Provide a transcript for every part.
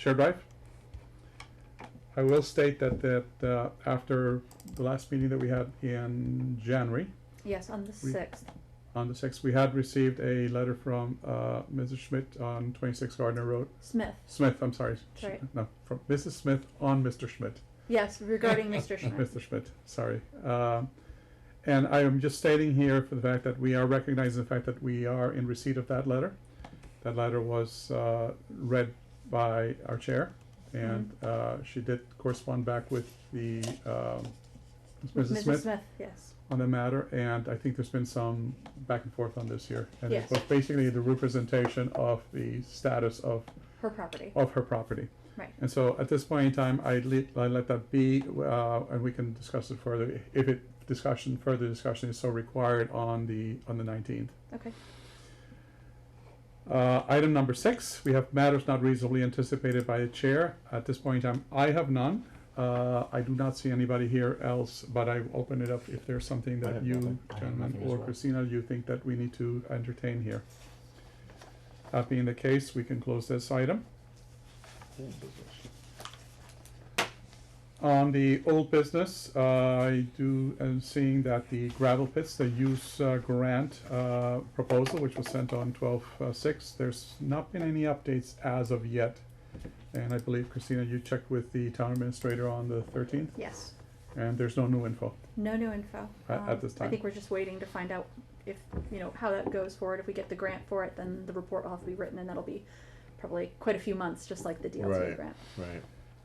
shared drive. I will state that, that, uh, after the last meeting that we had in January, Yes, on the We- sixth. on the sixth, we had received a letter from, uh, Mrs. Schmidt on twenty-six Gardner Road, Smith. Smith, I'm sorry. That's right. No, from Mrs. Smith on Mr. Schmidt. Yes, regarding Mr. Schmidt. Mr. Schmidt, sorry. Um, And I am just stating here for the fact that we are recognizing the fact that we are in receipt of that letter. That letter was uh, read by our chair, and uh, she did correspond back with the, um, Mrs. Smith yes. on the matter, and I think there's been some back and forth on this here. And it Yes. was basically the representation of the status of, Her property. of her property. Right. And so at this point in time, I let, I let that be, uh, and we can discuss it further, if it, discussion, further discussion is so required on the, on the nineteenth. Okay. Uh, item number six, we have matters not reasonably anticipated by the chair. At this point in time, I have none. Uh, I do not see anybody here else, but I open it up if there's something I that have you, nothing. I have gentlemen, nothing as or well. Christina, you think that we need to entertain here. That being the case, we can close this item. On the old business, uh, I do, am seeing that the gravel pits, the use uh, grant uh, proposal, which was sent on twelve uh, six, there's not been any updates as of yet. And I believe Christina, you checked with the town administrator on the thirteenth, Yes. and there's no new info. No new info. Um, A- at this I time. think we're just waiting to find out if, you know, how that goes forward. If we get the grant for it, then the report will have to be written and that'll be probably quite a few months, just like the DLTA Right. grant. Right.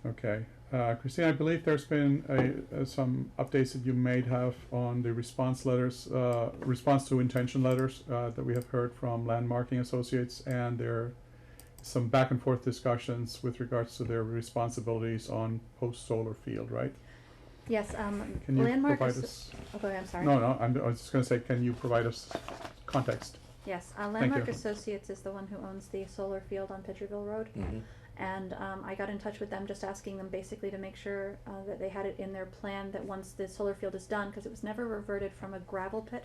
Okay, uh, Christina, I believe there's been a, uh, some updates that you may have on the response letters, uh, response to intention letters, uh, that we have heard from Landmarking Associates, and there are some back and forth discussions with regards to their responsibilities on post-solar field, right? Yes, um, Can you landmark. provide asso- us- Oh, go ahead, I'm sorry. No, no, I'm, I was just gonna say, can you provide us context? Yes, uh, Landmark you. Associates is the one who owns the solar field on Pitcherville Road. Mm-hmm. And um, I got in touch with them just asking them basically to make sure uh, that they had it in their plan that once the solar field is done, because it was never reverted from a gravel pit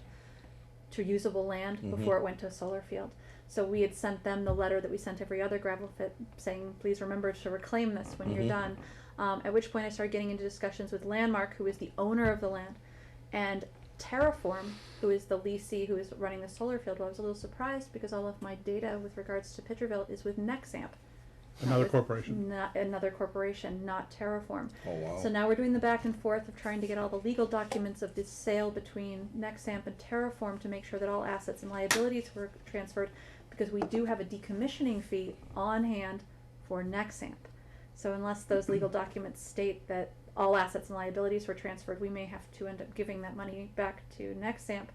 to usable land Mhm. before it went to a solar field. So we had sent them the letter that we sent every other gravel pit saying, please remember to reclaim this when you're Mhm. done. Um, at which point I started getting into discussions with Landmark, who is the owner of the land, and Terraform, who is the leasee who is running the solar field. Well, I was a little surprised because all of my data with regards to Pitcherville is with Nexamp. not Another with- corporation. Not another corporation, not Terraform. Oh wow. So now we're doing the back and forth of trying to get all the legal documents of this sale between Nexamp and Terraform to make sure that all assets and liabilities were transferred, because we do have a decommissioning fee on hand for Nexamp. So unless those legal documents state that all assets and liabilities were transferred, we may have to end up giving that money back to Nexamp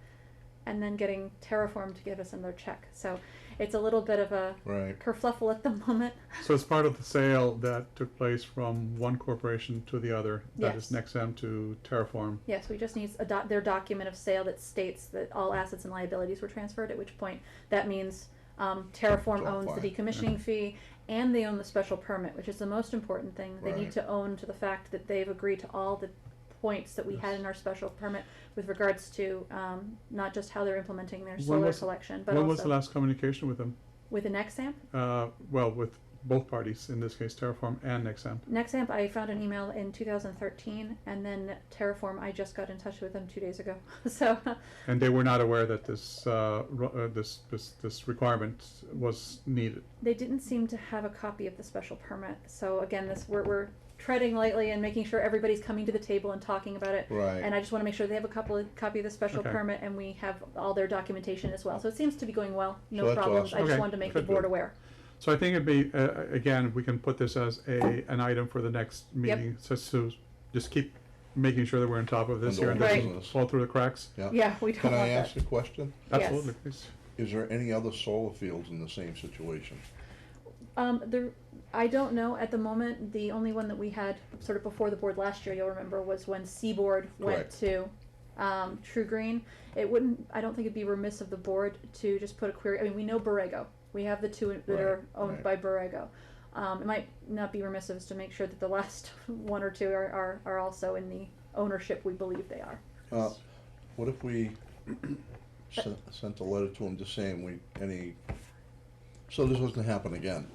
and then getting Terraform to give us another check. So it's a little bit of a right. kerfluffle at the moment. So it's part of the sale that took place from one corporation to the other, that is Yes. Nexam to Terraform. Yes, we just need a doc- their document of sale that states that all assets and liabilities were transferred, at which point that means um, Terraform Don't owns the apply. decommissioning fee and they own the special permit, which is the most important thing. They need Right. to own to the fact that they've agreed to all the points that we had Yes. in our special permit with regards to um, not just how they're implementing their When solar was- collection, but When was the also last communication with them? with an Nexamp. uh, well, with both parties, in this case, Terraform and Nexamp. Nexamp, I found an email in 2013, and then Terraform, I just got in touch with them two days ago. so. And they were not aware that this, uh, ro- uh, this, this, this requirement was needed. They didn't seem to have a copy of the special permit, so again, this, we're, we're treading lightly and making sure everybody's coming to the table and talking about it. Right. And I just wanna make sure they have a couple of, copy of the special Okay. permit and we have all their documentation as well, so it seems to be going well, no that's problems, awesome. I just Okay, wanted to make the good. board aware. So I think it'd be, uh, again, we can put this as a, an item for the next meeting, so, so just keep making sure that we're on top of this And here and old doesn't business. fall through the cracks. yeah. Yeah, we don't Can I want ask that. a question? Yes. Absolutely, please. Is there any other solar fields in the same situation? Um, the, I don't know, at the moment, the only one that we had sort of before the board last year, you'll remember, was when Seaboard went Correct. to, um, True Green. It wouldn't, I don't think it'd be remiss of the board to just put a query, I mean, we know Borrego, we have the two that are Right, owned by Borrego. Um, it might not be remiss of us to make sure that the last one or two are, are, are also in the ownership we believe they are. Uh, what if we sent, sent a letter to them just saying we any? So this doesn't happen again.